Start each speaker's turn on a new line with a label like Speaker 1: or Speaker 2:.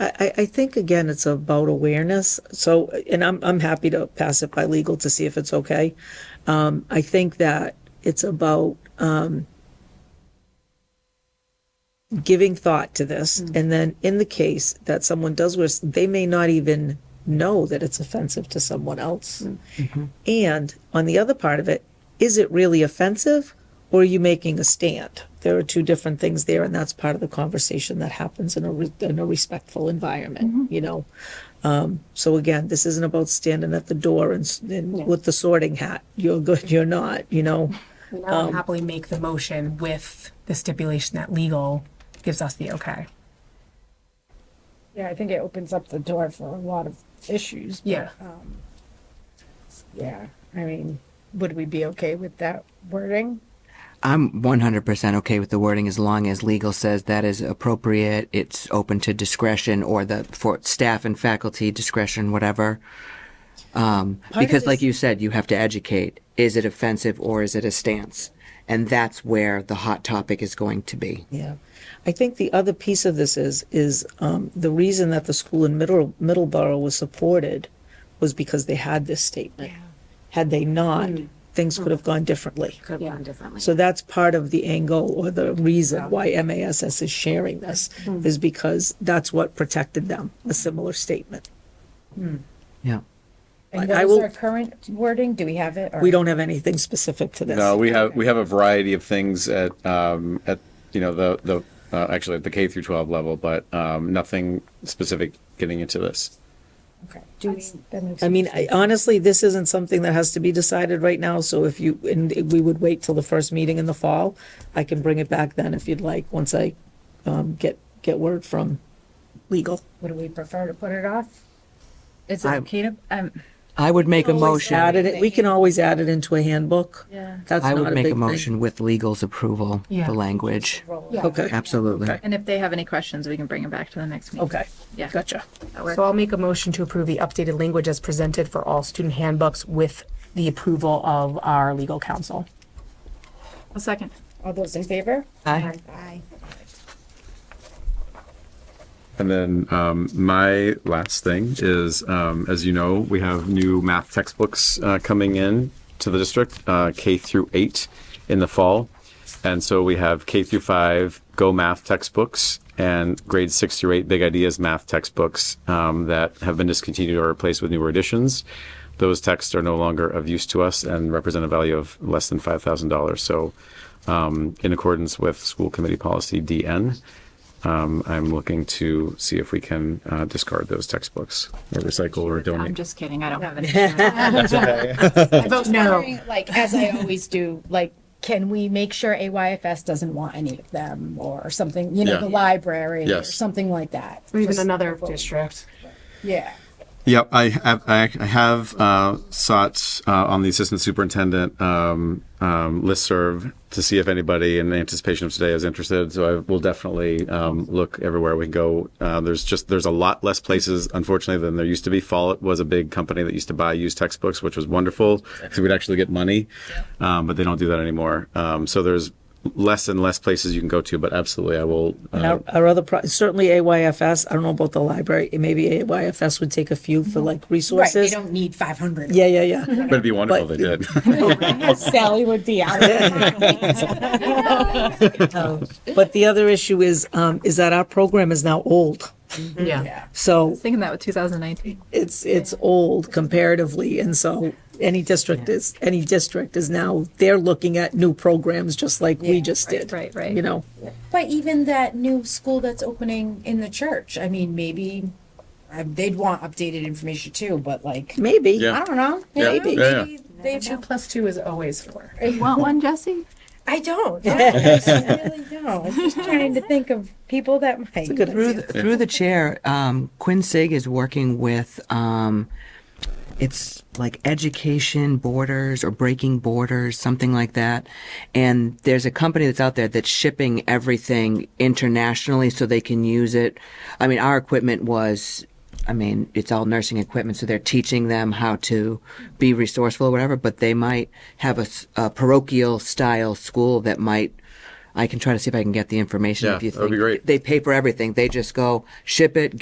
Speaker 1: I, I, I think again, it's about awareness. So, and I'm, I'm happy to pass it by legal to see if it's okay. Um, I think that it's about, um, giving thought to this. And then in the case that someone does this, they may not even know that it's offensive to someone else. And on the other part of it, is it really offensive or are you making a stand? There are two different things there, and that's part of the conversation that happens in a, re- in a respectful environment, you know? Um, so again, this isn't about standing at the door and, s- and with the sorting hat. You're good, you're not, you know?
Speaker 2: And I would happily make the motion with the stipulation that legal gives us the okay.
Speaker 3: Yeah, I think it opens up the door for a lot of issues. but,
Speaker 2: Yeah.
Speaker 3: um, Yeah, I mean, would we be okay with that wording?
Speaker 4: I'm 100% okay with the wording as long as legal says that is appropriate. It's open to discretion or the for staff and faculty discretion, whatever. Um,
Speaker 1: of
Speaker 4: because, like
Speaker 1: this-
Speaker 4: you said, you have to educate. Is it offensive or is it a stance? And that's where the hot topic is going to be.
Speaker 1: Yeah. I think the other piece of this is, is um, the reason that the school in Middle, Middleborough was supported was because they had this statement. Had they not, things could have gone differently.
Speaker 5: Hmm. could have gone differently.
Speaker 1: So that's part of the angle or the reason why MASs is sharing this,
Speaker 5: Hmm.
Speaker 1: is because that's what protected them, a similar statement.
Speaker 4: Yeah.
Speaker 3: And
Speaker 1: I- I
Speaker 3: what is
Speaker 1: will-
Speaker 3: our current wording? Do we have it? or-
Speaker 1: We don't have anything specific to this.
Speaker 6: No, we have, we have a variety of things at, um, at, you know, the, the, uh, actually at the K through 12 level, but, um, nothing specific getting into this.
Speaker 3: Okay.
Speaker 5: Do we-
Speaker 3: That makes
Speaker 1: I mean, I- honestly, this isn't something that has to be decided right now, so if you, and we would wait till the first meeting in the fall. I can bring it back then if you'd like, once I um, get, get word from legal.
Speaker 3: Would we prefer to put it off?
Speaker 7: Is it
Speaker 4: I-
Speaker 7: okay to, um,
Speaker 4: I would make a
Speaker 1: Add
Speaker 4: motion.
Speaker 1: it, we can always add it into a handbook.
Speaker 7: Yeah.
Speaker 1: That's
Speaker 4: I
Speaker 1: not
Speaker 4: would
Speaker 1: a
Speaker 4: make
Speaker 1: big
Speaker 4: a
Speaker 1: thing.
Speaker 4: motion with legal's approval,
Speaker 2: Yeah.
Speaker 4: the language.
Speaker 1: Okay,
Speaker 4: Absolutely.
Speaker 7: and if they have any questions, we can bring them back to the next meeting.
Speaker 1: okay,
Speaker 7: Yeah.
Speaker 1: gotcha.
Speaker 2: So I'll make a motion to approve the updated language as presented for all student handbooks with the approval of our legal counsel.
Speaker 7: A second.
Speaker 3: All those in favor?
Speaker 4: Aye.
Speaker 3: Aye.
Speaker 6: And then, um, my last thing is, um, as you know, we have new math textbooks, uh, coming in to the district, uh, K through eight in the fall. And so we have K through five Go Math textbooks and grade six through eight Big Ideas math textbooks um, that have been discontinued or replaced with newer editions. Those texts are no longer of use to us and represent a value of less than five thousand dollars. So, um, in accordance with School Committee Policy DN, um, I'm looking to see if we can uh, discard those textbooks or recycle or
Speaker 7: I'm
Speaker 6: donate.
Speaker 7: just kidding. I don't have any.
Speaker 3: I vote no. Like, as I always do, like, can we make sure AYFS doesn't want any of them or something, you know,
Speaker 6: Yeah.
Speaker 3: the library or
Speaker 6: Yes.
Speaker 3: something like that?
Speaker 2: Or even
Speaker 3: Just-
Speaker 2: another district.
Speaker 3: Yeah.
Speaker 6: Yep, I have, I I have uh, sought uh, on the assistant superintendent um, um, listserv to see if anybody in anticipation of today is interested. So I will definitely um, look everywhere we can go. Uh, there's just, there's a lot less places, unfortunately, than there used to be. Follett was a big company that used to buy used textbooks, which was wonderful. So we'd actually get money, um, but they don't do that anymore. Um, so there's less and less places you can go to, but absolutely, I will. uh,
Speaker 1: And our, our other, pro- certainly AYFS, I don't know about the library, maybe AYFS would take a few
Speaker 7: Mm-hmm.
Speaker 1: for like
Speaker 3: Right, we
Speaker 1: resources.
Speaker 3: don't need five hundred.
Speaker 1: Yeah, yeah, yeah.
Speaker 6: But it'd be wonderful
Speaker 1: But-
Speaker 6: if they did.
Speaker 3: Sally would be out.
Speaker 1: But the other issue is, um, is that our program is now old.
Speaker 2: Yeah.
Speaker 1: So
Speaker 7: Thinking that with 2019.
Speaker 1: it's it's old comparatively and so any district is any district is now they're looking at new programs just like we just did
Speaker 7: right, right.
Speaker 1: you know
Speaker 3: But even that new school that's opening in the church, I mean, maybe uh, they'd want updated information too, but like,
Speaker 1: maybe
Speaker 3: I don't know.
Speaker 6: Yeah,
Speaker 3: Maybe,
Speaker 6: yeah, yeah.
Speaker 3: maybe they
Speaker 2: Two plus two is always four.
Speaker 7: Want one, Jesse?
Speaker 3: I don't. I really don't. I'm just trying to think of people that might. It's a
Speaker 1: good
Speaker 4: Through the, through the chair, um, Quinn Sig is working with, um, it's like Education Borders or Breaking Borders, something like that. And there's a company that's out there that's shipping everything internationally so they can use it. I mean, our equipment was, I mean, it's all nursing equipment, so they're teaching them how to be resourceful or whatever, but they might have a, s- a parochial style school that might. I can try to see if I can get the information
Speaker 6: Yeah,
Speaker 4: if you think
Speaker 6: that would be great.
Speaker 4: they pay for everything. They just go ship it,